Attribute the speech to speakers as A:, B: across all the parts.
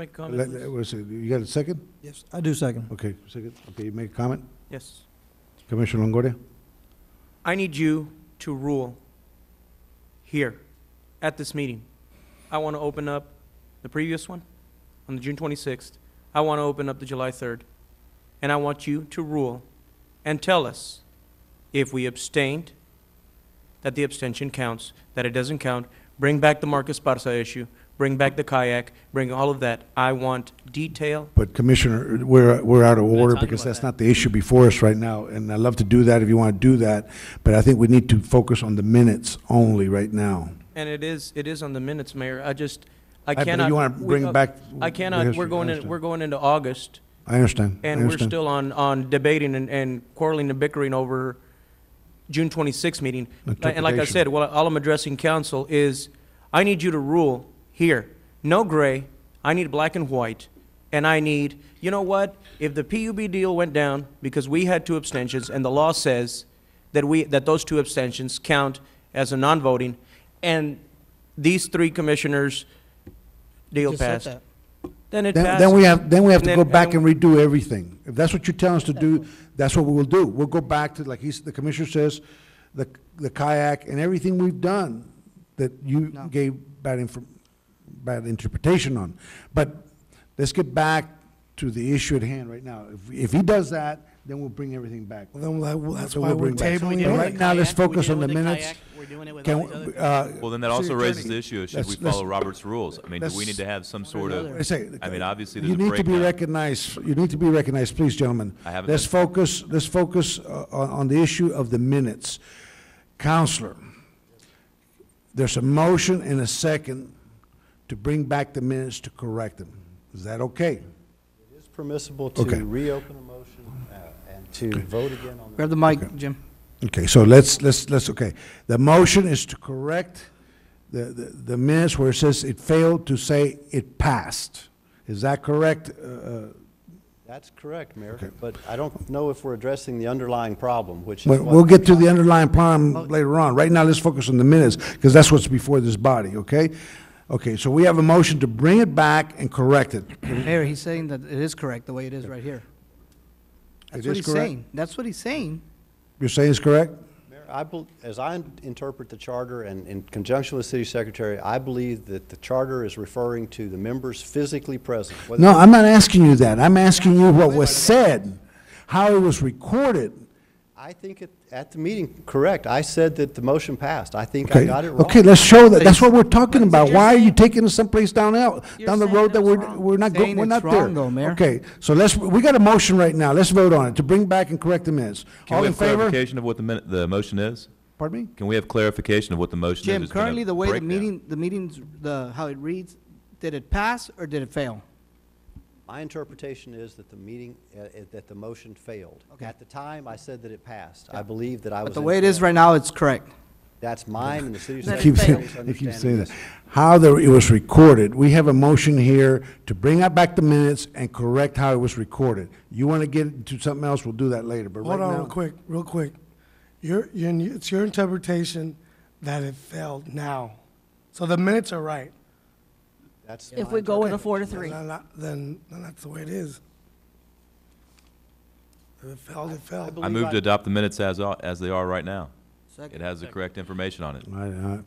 A: Make
B: Let-
A: comment,
B: let-
A: please.
B: wait a second. You got a second?
C: Yes, I do second.
B: Okay, second. Okay, you make a comment?
A: Yes.
B: Commissioner Longoria?
A: I need you to rule here, at this meeting. I want to open up the previous one on the June 26th. I want to open up the July 3rd. And I want you to rule and tell us if we abstained, that the abstention counts, that it doesn't count. Bring back the Marcus Barca issue, bring back the kayak, bring all of that. I want detail
B: But Commissioner, we're, we're out of
D: gonna
B: order
D: talk
B: because
D: about
B: that's
D: that.
B: not the issue before us right now. And I'd love to do that if you want to do that, but I think we need to focus on the minutes only right now.
A: And it is, it is on the minutes, Mayor. I just, I
B: but if
A: cannot.
B: you wanna
A: we-
B: bring
A: uh,
B: back
A: I
B: the
A: cannot, we're
B: history, I
A: going in,
B: understand.
A: we're going into August,
B: I understand, I
A: and we're
B: understand.
A: still on, on debating and, and quarreling and bickering over June twenty-sixth meeting. And like I
B: Interpretation.
A: said, well, all I'm addressing council is, I need you to rule here. No gray, I need black and white, and I need, you know what? If the PUB deal went down, because we had two abstentions, and the law says that we, that those two abstentions count as a non-voting, and these three commissioners deal passed, then it
B: Then,
A: passed.
B: then we have, then we have to
A: Then-
B: go back
A: and-
B: and redo everything. If that's what you tell us to do, that's what we will do. We'll go back to, like he's, the commissioner says, the, the kayak and everything we've done that you
C: No.
B: gave bad infor, bad interpretation on. But let's get back to the issue at hand right now. If, if he does that, then we'll bring everything back.
C: Then that- that's
B: Then
C: why
B: we'll
C: we're
B: bring back. So we
C: tabling
B: need
C: it.
B: to-
C: Right.
B: right now, let's focus on the minutes.
D: We're doing it with all
B: Can,
D: these other.
B: we- uh.
E: Well, then that also raises the issue, of should
B: let's-
E: we
B: let's-
E: follow Robert's rules? I mean, do we
B: let's-
E: need to have some sort
B: I
E: of,
B: say,
E: I mean, obviously, there's
B: you
E: a
B: need to be
E: breakdown.
B: recognized, you need to be recognized, please, gentlemen.
E: I haven't
B: Let's
E: been.
B: focus, let's focus uh, on, on the issue of the minutes. Counselor, there's a motion and a second to bring back the minutes to correct them. Is that okay?
F: It's permissible
B: Okay.
F: to reopen a motion uh, and to vote again on the
C: Grab the mic, Jim.
B: Okay, so let's, let's, let's, okay. The motion is to correct the, the, the minutes where it says it failed to say it passed. Is that correct? Uh, uh,
F: That's correct,
B: Okay.
F: Mayor, but I don't know if we're addressing the underlying problem, which is
B: We'll,
F: what...
B: we'll get to the underlying problem later on. Right now, let's focus on the minutes, because that's what's before this body, okay? Okay, so we have a motion to bring it back and correct it.
C: Mayor, he's saying that it is correct, the way it is right here. That's
B: It
C: what
B: is
C: he's
B: correct?
C: saying. That's what he's saying.
B: You're saying it's correct?
F: Mayor, I, bel- as I interpret the charter and in conjunction with City Secretary, I believe that the charter is referring to the members physically present. whether-
B: No, I'm not asking you that. I'm asking you what was said, how it was recorded.
F: I think at, at the meeting, correct, I said that the motion passed. I think I
B: Okay,
F: got it wrong.
B: okay, let's show that. That's
C: Please.
B: what we're talking about.
C: you're
B: Why are you taking us someplace down out,
C: You're
B: down the
C: saying
B: road that
C: it's
B: we're,
C: wrong.
B: we're not, go-
C: Saying
B: we're
C: it's
B: not there?
C: wrong though, Mayor.
B: Okay, so let's, we got a motion right now. Let's vote on it, to bring back and correct the minutes.
E: can
B: All
E: we
B: in
E: have
B: favor?
E: clarification of what the minute, the motion is?
B: Pardon me?
E: Can we have clarification of what the motion is?
C: Jim,
E: It's been a
C: currently, the way the
E: breakdown.
C: meeting, the meetings, the, how it reads, did it pass or did it fail?
F: My interpretation is that the meeting, uh, uh, that the motion failed.
C: Okay.
F: At the time, I said that it passed. I believe that I was
C: But the way it is
F: incorrect.
C: right now, it's correct.
F: That's mine and the city
B: They keep,
F: secretary's
B: they keep
F: understanding
B: saying
F: this.
B: that. How the, it was recorded, we have a motion here to bring out back the minutes and correct how it was recorded. You want to get into something else, we'll do that later, but right
G: Hold on, real
B: now.
G: quick, real quick. Your, your, it's your interpretation that it failed now. So the minutes are right.
F: That's
H: If
F: my
H: we go with a
F: interpretation.
H: four to three.
G: Then, I- then then that's the way it is. If it failed, it failed.
E: I move to adopt the minutes as, are- as they are right now. It has the correct information on it.
B: I- uh,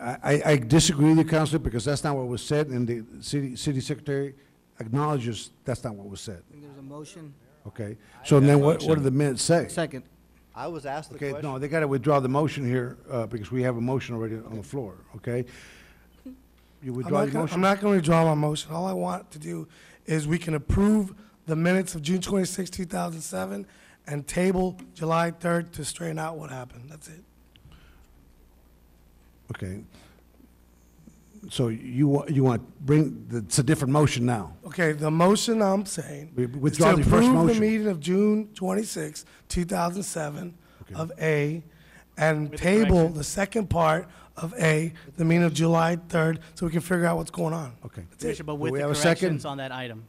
B: I, I disagree with you, Counselor, because that's not what was said, and the city, city secretary acknowledges that's not what was said,
C: I think there's a motion.
B: okay? So then what, what do the minutes say?
C: Second.
F: I was asked the
B: Okay,
F: question.
B: no, they got to withdraw the motion here, uh, because we have a motion already on the floor, okay? You
G: I'm
B: withdraw
G: not
B: your
G: gonna- I'm
B: motion?
G: not going to withdraw my motion. All I want to do is we can approve the minutes of June 26, 2007, and table July 3rd to straighten out what happened. That's it.
B: Okay. So you, wa- you want, bring, it's a different motion now.
G: Okay, the motion I'm saying
B: We- we
G: is
B: withdraw
G: to
B: the first
G: approve the
B: motion.
G: meeting of June 26, 2007 of A, and table the second part of A, the meeting of July 3rd, so we can figure out what's going on.
B: Okay.
G: That's
D: Commissioner,
G: it.
D: but
B: Do
D: with
B: we
D: the
B: have a second?
D: corrections on that item.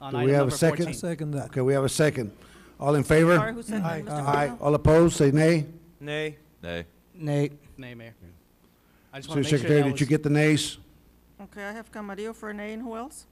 D: On
B: Do we
D: item
B: have a
D: number
B: second?
D: 14.
C: Second that.
B: Okay, we have a second. All in favor?
H: Sorry, who said that? Mr.
B: Aye.
H: Cornell?
B: All opposed, say nay.
A: Nay.
E: Nay.
C: Nate,
D: Nay, Mayor. I just
B: City
D: want to make sure
B: Secretary,
D: that
B: did you
D: was,
B: get the nays?
H: Okay, I have Camarillo, Fernay, and who else?